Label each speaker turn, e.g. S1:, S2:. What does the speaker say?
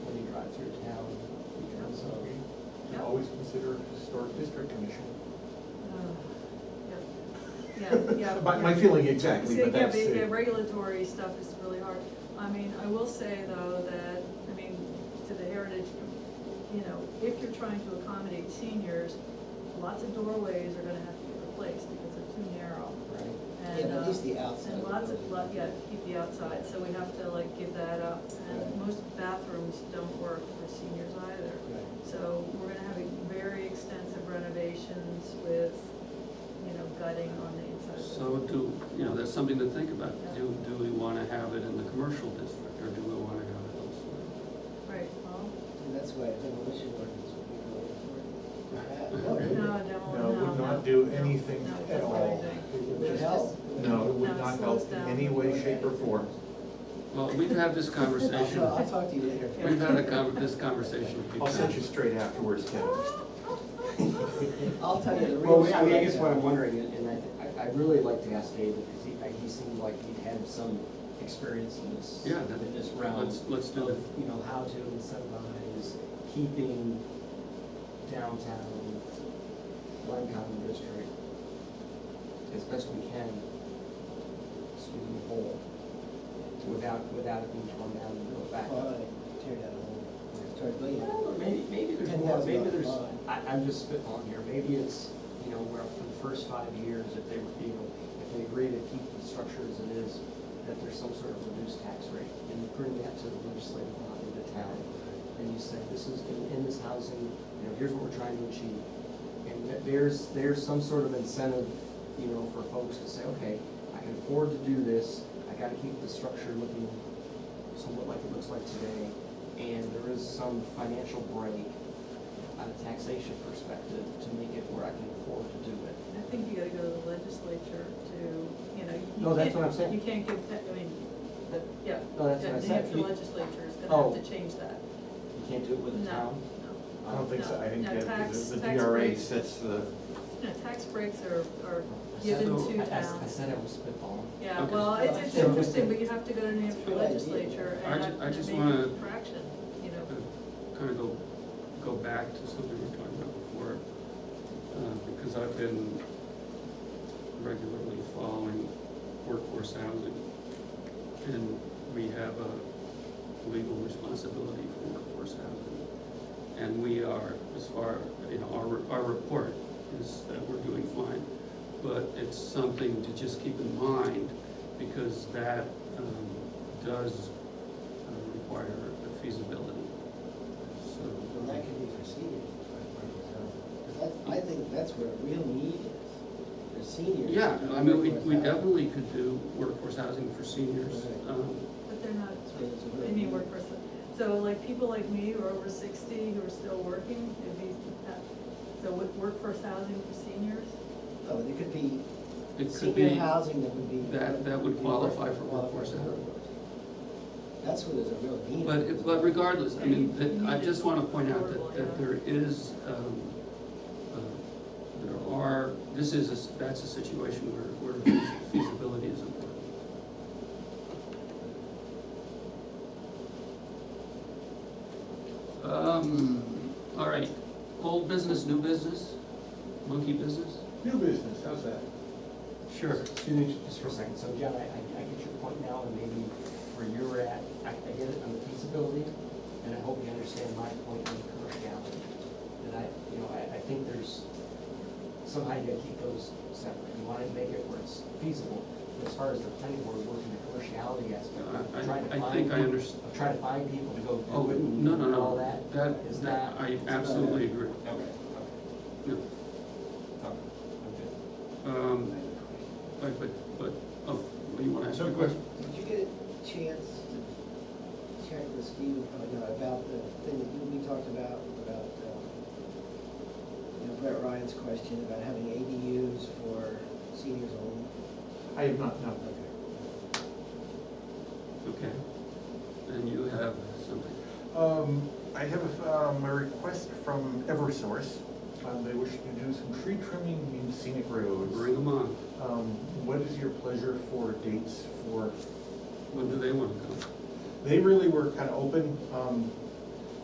S1: always consider a historic district commission.
S2: Yeah, yeah.
S1: My, my
S2: yeah.
S1: feeling exactly,
S2: See,
S1: but
S2: yeah,
S1: that's.
S2: the, the
S1: uh,
S2: regulatory stuff is really hard. I mean, I will say though that, I mean, to the heritage, you know, if you're trying to accommodate seniors, lots of doorways are gonna have to be replaced because they're too narrow.
S3: Right. Yeah,
S2: And,
S3: but
S2: uh,
S3: at least the outside.
S2: And lots of, lot- yeah, keep the outside, so we have to like give that up. And
S3: Right.
S2: most bathrooms don't work for seniors either.
S3: Right.
S2: So we're gonna have a very extensive renovations with, you know, gutting on the inside. of the-
S4: So do, you know, that's something to think about. Do, do we want to have it in the commercial district or do we want to have it elsewhere?
S2: Right, well,
S3: And that's why demolition ordinance would be really
S2: no,
S3: important.
S2: no,
S1: No,
S2: no,
S1: it
S2: no.
S1: would not do
S2: no,
S1: anything
S2: no,
S1: at
S2: that's what I
S1: all.
S2: think.
S1: It would
S3: Would
S1: just-
S3: help.
S1: No, it
S2: No,
S1: would
S2: it
S1: not
S2: slows
S1: help in
S2: down.
S1: any way, shape, or form.
S4: Well, we've had this
S3: I'll,
S4: conversation,
S3: I'll talk to you later.
S4: we've had a con, this conversation a few
S1: I'll
S4: times.
S1: send you straight afterwards, Ken.
S3: I'll tell you the real.
S5: Well, I mean, I guess what I'm
S3: rundown.
S5: wondering, and and I, thi- I- I'd really like to ask David, because he, I- he seemed like he'd had some experience in this,
S4: Yeah, that-
S5: in this realm.
S4: let's- let's do
S5: of,
S4: it.
S5: You know, how to incentivize keeping downtown Common District as best we can, excuse me, whole, without, without it being torn down and built back up.
S3: Well, I tear down a whole, start building.
S5: Well, Maybe, maybe there's
S3: Ten
S5: more,
S3: thousand
S5: maybe
S3: dollar
S5: there's,
S3: fine.
S5: I, I'm just spitballing here, maybe it's, you know, where for the first five years, if they, were, you know, if they agree to keep the structure as it is, that there's some sort of reduced tax rate, and you bring that to the legislative body of the town, and you say, this is, in, in this housing, you know, here's what we're trying to achieve. And that there's, there's some sort of incentive, you know, for folks to say, okay, I can afford to do this, I gotta keep the structure looking somewhat like it looks like today, and there is some financial break on a taxation perspective to make it where I can afford to do it.
S2: I think you gotta go to the legislature to, you know, you.
S5: No, that's
S2: can't-
S5: what I'm saying.
S2: You can't give, that- I mean,
S5: That-
S2: yeah.
S5: No, that's
S2: yeah,
S5: what I
S2: New
S5: said.
S2: Hampshire
S5: You-
S2: legislature is gonna
S5: Oh.
S2: have to change that.
S5: You can't do it with the
S2: No,
S5: town?
S2: no.
S1: I don't think so, I think
S2: No,
S1: that
S2: tax-
S1: the- the
S2: tax
S1: DRA
S2: break.
S1: sets the,
S2: No, tax breaks are, are
S5: I said-
S2: given
S4: So,
S2: to
S5: I- I s- I
S2: towns.
S5: said I was spitballing.
S2: Yeah,
S4: Okay.
S2: well, it's, it's
S3: So-
S2: interesting, but you have to go to New
S3: It's a
S2: Hampshire
S3: good idea.
S2: legislature
S4: I
S2: and
S4: ju- I
S2: have
S4: just
S2: to make
S4: wanna-
S2: a fraction, you know.
S4: uh, Kind of go, go back to something we were talking about before, uh, because I've been regularly following workforce housing. And we have a legal responsibility for workforce housing. And we are, as far, you know, our, our report is that we're doing fine. But it's something to just keep in mind, because that, um, does uh, require a feasibility.
S3: And
S4: So,
S3: that could be for seniors. Because that's, I think that's where real need is, for seniors.
S4: yeah, I mean, we, we
S3: Workforce housing.
S4: definitely could do workforce housing for seniors.
S3: Right.
S4: Um,
S2: But they're not,
S3: It's really- it's really-
S2: I mean, work person. So like people like me who are over sixty, who are still working, it'd be, uh, so with workforce housing for seniors?
S3: Oh, there could be
S4: It could
S3: senior
S4: be,
S3: housing that would be.
S4: that- that would qualify for
S3: qualify
S4: workforce housing.
S3: That's where there's a real need.
S4: but, it- but regardless, I mean, that- I just want to point out that, that there is, um, uh, there are, this is, a s- that's a situation where, where feasibility is important. Um, all right, old business, new business, monkey business?
S1: new business, how's that?
S4: Sure.
S5: Excuse me just for a second, so John, I, I I get your point now, and maybe where you're at, I, I get it on the feasibility, and I hope you understand my point on the commerciality. That I, you know, I, I think there's, somehow you gotta keep those separate, you wanna make it where it's feasible, but as far as the planning board working the commerciality aspect,
S4: I- I-
S5: trying to
S4: I
S5: find.
S4: think I
S5: peop-
S4: underst-
S5: of Trying to find people to go
S4: Oh,
S5: do it and
S4: no, no,
S5: all
S4: no,
S5: that, is
S4: that, that,
S5: not-
S4: I
S3: not
S4: absolutely agree.
S5: Okay, okay,
S4: No.
S5: okay, okay.
S4: Um, but, but, but, oh, well, you wanna ask
S1: So,
S4: a question?
S3: Did you get a chance to check with Steve, uh, you know, about the thing that you, we talked about, about, um, you know, Brett Ryan's question about having ADUs for seniors only?
S1: I have not, no.
S4: Okay. And you have something.
S1: Um, I have, um, a request from Eversource. Um, they wish to do some tree trimming in scenic roads.
S4: Bring them on.
S1: Um, what is your pleasure for dates for,
S4: When do they wanna come?
S1: they really were kind of open, um,